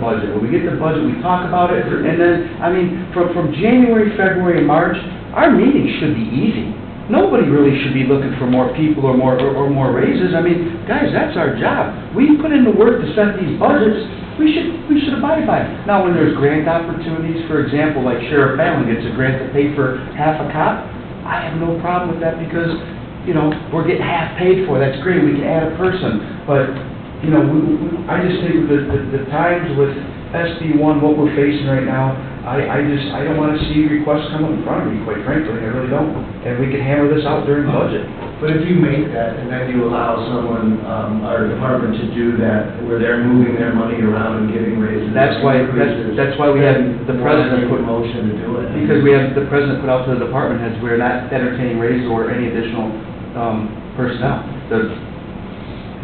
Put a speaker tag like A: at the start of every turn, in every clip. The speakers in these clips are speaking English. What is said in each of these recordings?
A: budget. When we get the budget, we talk about it, and then, I mean, from, from January, February, and March, our meetings should be easy. Nobody really should be looking for more people or more, or or more raises. I mean, guys, that's our job. We put in the work to set these budgets, we should, we should abide by it. Now, when there's grant opportunities, for example, like Sheriff Fallon gets a grant to pay for half a cop, I have no problem with that because, you know, we're getting half paid for, that's great, we can add a person, but you know, we, we- I just think that the, the times with SB one, what we're facing right now, I, I just, I don't wanna see requests come up in front of me, quite frankly, I really don't. And we can hammer this out during budget.
B: But if you make that, and then you allow someone, um, our department to do that, where they're moving their money around and giving raises.
A: That's why- that's-
B: increases,
A: that's why we had the
B: then
A: president
B: why
A: put-
B: make a motion to do it.
A: Because we have, the president put out to the department heads, we're not entertaining raises or any additional, um, personnel. The-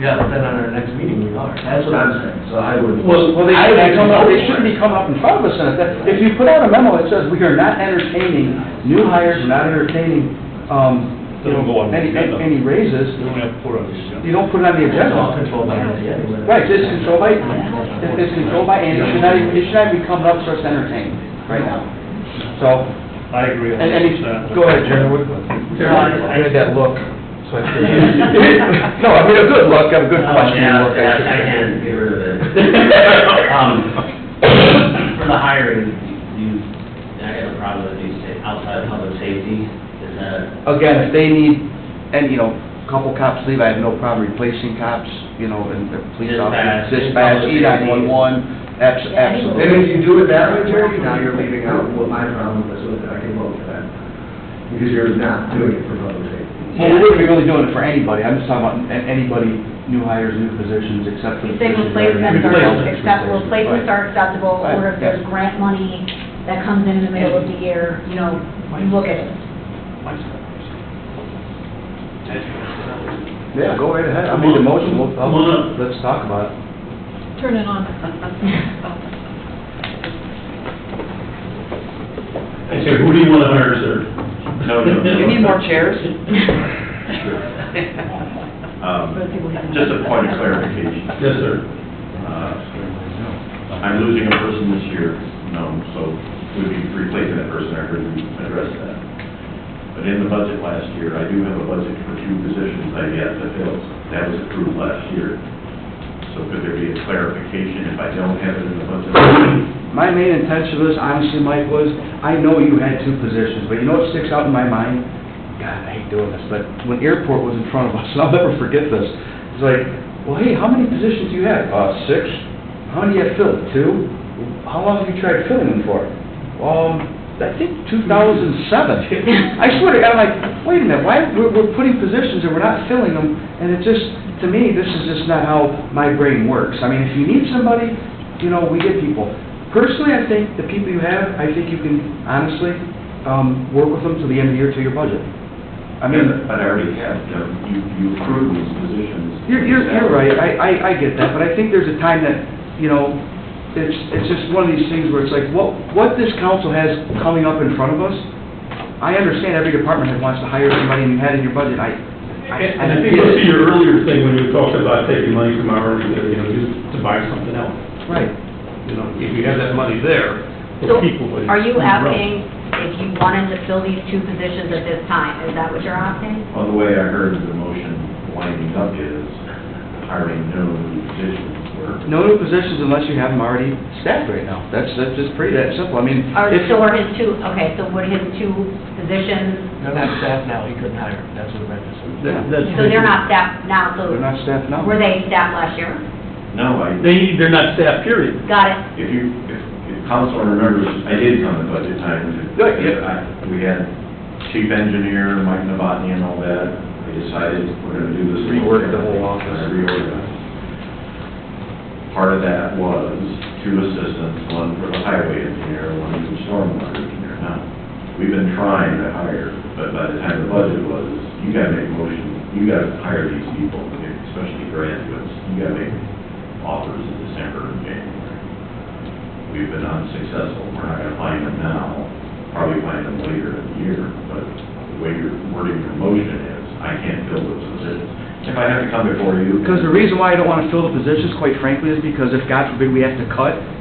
B: Yeah, but then on our next meeting, we are. That's what I'm saying, so I would.
A: Well, they shouldn't be come up, they shouldn't be coming up in front of us, and if, that- if you put out a memo that says, we are not entertaining new hires, we're not entertaining, um, you
C: Doesn't go
A: know,
C: on the
A: any,
C: agenda.
A: any raises,
C: We don't have to put on the
A: you
C: agenda.
A: don't put it on the
B: It's
A: agenda.
B: all controlled by Andy anyway.
A: Right, it's controlled by, it's it's controlled by Andy, it should not, even- it should not be coming up for us to entertain right now. So,
C: I agree.
A: and, and, it's- go ahead, Jeremy, what- I had that look, so I figured. No, I mean, a good look, a good
D: Oh,
A: question.
D: yeah,
A: look, I
D: yeah,
A: should
D: I
A: say.
D: can get rid of it. Um, For the hiring, you, I got a problem with you say outside of public safety, is that,
A: Again, if they need, and, you know, a couple cops leave, I have no problem replacing cops, you know, and the police officers,
D: Dispatch,
A: dispatch, E nine one one, abs-
E: Yeah, I
B: And if
A: absolutely.
B: you do it that way, Jerry, now you're leaving out what my problem is with it, I can vote for that. Because you're not doing it for public safety.
A: Well, we wouldn't be really doing it for anybody, I'm just talking about a- anybody, new hires, new positions, except for the
E: You say
A: positions. that are-
E: replacements are
A: Replacements,
E: acceptable, replacements are acceptable, or if there's
A: Right.
E: grant money that comes in in the middle of the year, you know, you look at it.
A: Yeah, go right ahead, I'll make the motion, we'll,
D: Come on
A: I'll- let's talk about it.
F: Turn it on.
C: I say, who do you want to hire, sir? No, no, no.
G: You need more chairs?
H: Um, Just a point of clarification.
C: Yes, sir.
H: Uh, I'm losing a person this year, um, so would be replacing that person, I heard you address that. But in the budget last year, I do have a budget for two positions I yet to fill. That was approved last year. So could there be a clarification if I don't have it in the budget?
A: My main intention of this, honestly, Mike, was, I know you had two positions, but you know what sticks out in my mind? God, I hate doing this, but when airport was in front of us, and I'll never forget this, it's like, well, hey, how many positions do you have? Uh, six. How many have filled? Two. How long have you tried filling them for? Um, I think two thousand seven. I swear to God, I'm like, wait a minute, why, we're, we're putting positions and we're not filling them, and it just, to me, this is just not how my brain works. I mean, if you need somebody, you know, we get people. Personally, I think the people you have, I think you can honestly, um, work with them to the end of the year to your budget. I mean,
H: But I already have, them. you, you approved these positions.
A: you're, you're, you're right, I, I, I get that, but I think there's a time that, you know, it's, it's just one of these things where it's like, what, what this council has coming up in front of us, I understand every department that wants to hire somebody and you had in your budget, I, I,
C: And
A: I get
C: and I think that's
A: it.
C: your earlier thing when you were talking about taking money from our, you know, just to buy something else.
A: Right.
C: You know, if you have that money there,
E: So
C: the people would.
E: are you
C: would grow.
E: asking if you wanted to fill these two positions at this time? Is that what you're asking?
H: Well, the way I heard the motion winding up is hiring no new positions were
A: No new positions unless you have them already staffed right now, that's, that's just pretty, that simple, I mean,
E: Or,
A: if,
E: so are his two, okay, so would his two positions,
B: They're not staff now, he couldn't hire, that's what Brenda said.
C: That- that's-
E: so they're not staffed now, so
A: they're not staffed now.
E: were they staffed last year?
H: No, I,
C: They, they're not staff, period.
E: Got it.
H: if you, if, if council remembers, I did come to budget time.
A: Right, yeah.
H: I- We had chief engineer, Mike Novotny and all that, we decided we're gonna do this.
A: Rework the whole office.
H: Reorganize. Part of that was two assistants, one for the highway engineer, one for stormwater engineer. Now, we've been trying to hire, but by the time the budget was, you gotta make motion, you gotta hire these people, especially graduates, you gotta make offers in December and January. We've been unsuccessful, we're not gonna find them now, probably find them later in the year, but the way you're wording your motion is, I can't fill those positions. If I have to come before you.
A: Because the reason why I don't want to fill the positions, quite frankly, is because if, God forbid, we have to cut,